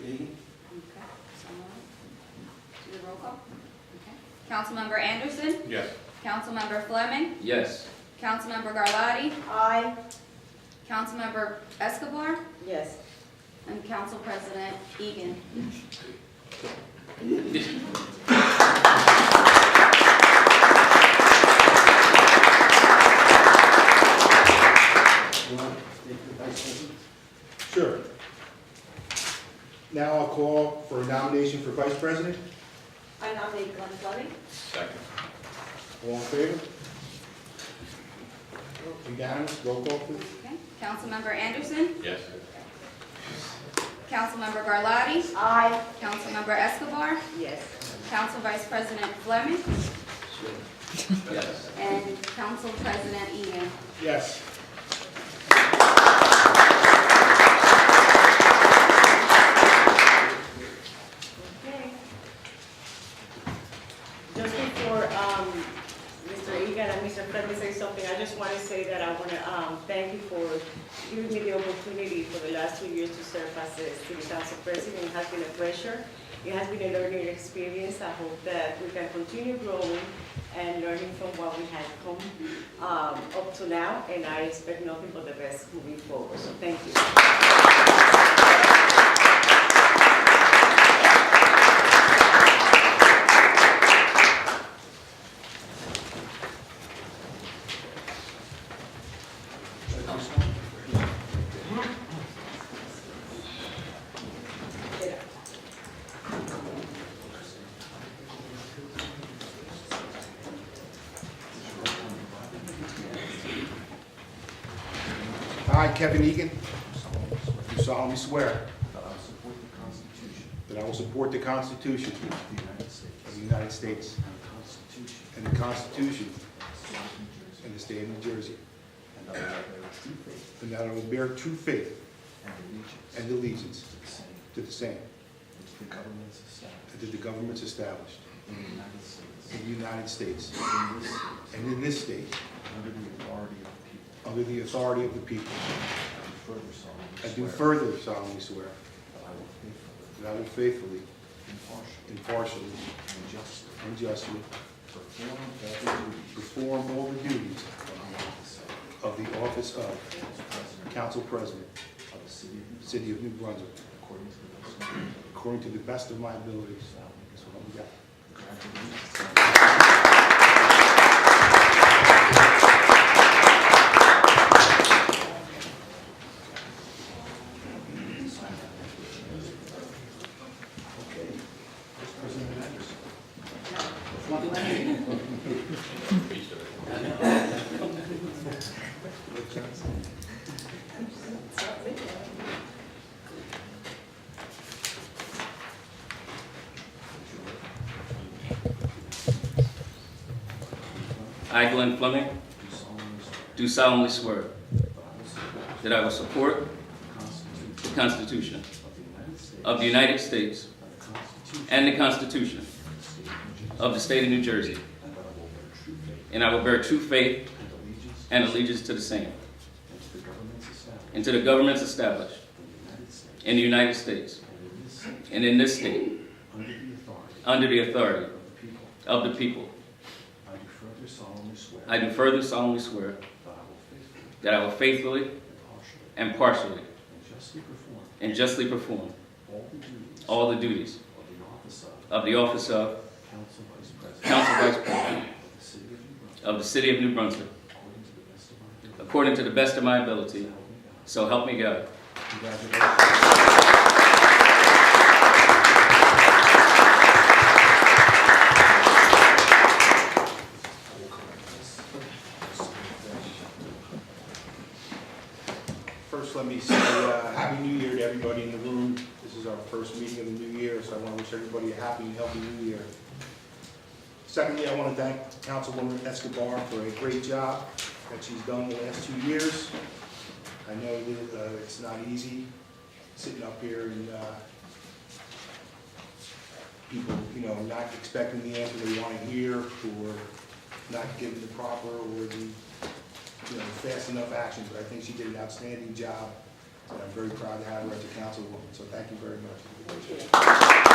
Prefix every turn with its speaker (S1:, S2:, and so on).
S1: call. Okay. Councilmember Anderson,
S2: Yes.
S1: Councilmember Fleming,
S3: Yes.
S1: Councilmember Garlotti,
S4: Aye.
S1: Councilmember Escobar,
S4: Yes.
S1: and Council President Egan.
S5: You want to take the vice president?
S2: Sure. Now I'll call for a nomination for vice president.
S4: I nominate Glenn Fleming.
S3: Second.
S2: All in favor? Unanimous, roll call please.
S1: Okay. Councilmember Anderson,
S3: Yes.
S1: Councilmember Garlotti,
S4: Aye.
S1: Councilmember Escobar,
S4: Yes.
S1: Council Vice President Fleming,
S3: Yes.
S1: and Council President Egan.
S2: Yes.
S4: Okay. Just before, um, Mr. Egan and Mr. Fleming say something, I just want to say that I want to, um, thank you for giving me the opportunity for the last two years to serve as the city council president. It has been a pleasure. It has been a learning experience. I hope that we can continue growing and learning from what we had come, um, up to now. And I expect nothing but the best moving forward. So thank you.
S2: I, Kevin Egan, do solemnly swear
S5: That I will
S2: that I will support
S5: support the Constitution
S2: the Constitution
S5: of the United
S2: of
S5: States.
S2: the United States
S5: And
S2: and the
S5: the Constitution
S2: Constitution
S5: of the State of New Jersey.
S2: and the State of New Jersey,
S5: And that I will bear true faith
S2: and that I will bear true faith and
S5: and allegiance.
S2: allegiance
S5: To the same.
S2: to the same,
S5: And to the governments established.
S2: and to the governments established
S5: In the United States.
S2: in the United States
S5: And in this state.
S2: and in this state
S5: Under the authority of the people.
S2: under the authority of the people.
S5: I do
S2: I do
S5: further solemnly swear.
S2: further solemnly swear
S5: That I will faithfully,
S2: that I will faithfully,
S5: impartially,
S2: impartially,
S5: and justly.
S2: and justly
S5: Perform every duty.
S2: perform all the duties
S5: Of the office of
S2: of the office of
S5: President.
S2: Council President,
S5: Of the City of New Jersey.
S2: City of New Brunswick,
S5: According to the best of my ability.
S2: according to the best of my abilities. That's what we got.
S5: Congratulations.
S3: I, Glenn Fleming,
S5: Do solemnly swear
S3: do solemnly swear
S5: that I will
S3: that I will
S5: support
S3: support
S5: the Constitution
S3: the Constitution
S5: of the United States.
S3: of the United States
S5: And the Constitution.
S3: and the Constitution
S5: of the State of New Jersey.
S3: of the State of New Jersey,
S5: And that I will bear true
S3: and
S5: faith
S3: I will bear true faith
S5: and allegiance.
S3: and allegiance to the same,
S5: And to the governments established.
S3: and to the governments established
S5: In the United States.
S3: in the United States
S5: And in this state.
S3: and in this state,
S5: Under the authority.
S3: under the authority
S5: Of
S3: of the
S5: the people.
S3: people.
S5: I do further solemnly swear.
S3: I do further solemnly swear
S5: That I will faithfully,
S3: that I will faithfully,
S5: impartially,
S3: and partially,
S5: and justly perform
S3: and justly perform
S5: all
S3: all
S5: the duties.
S3: the duties
S5: Of the office of
S3: of the office of
S5: Council Vice President.
S3: Council Vice President
S5: Of the City of New Brunswick.
S3: of the City of New Brunswick,
S5: According to the best of my ability.
S3: according to the best of my
S5: So
S3: ability. So help
S5: help me God.
S3: me God.
S5: Congratulations.
S2: First, let me say uh, Happy New Year to everybody in the room. This is our first meeting of the new year, so I want to wish everybody a happy and healthy new year. Secondly, I want to thank Councilwoman Escobar for a great job that she's done the last two years. I know that uh, it's not easy sitting up here and uh, people, you know, not expecting the answer they want to hear or not given the proper or the you know, fast enough action, but I think she did an outstanding job, and I'm very proud to have her as a councilwoman, so thank you very much.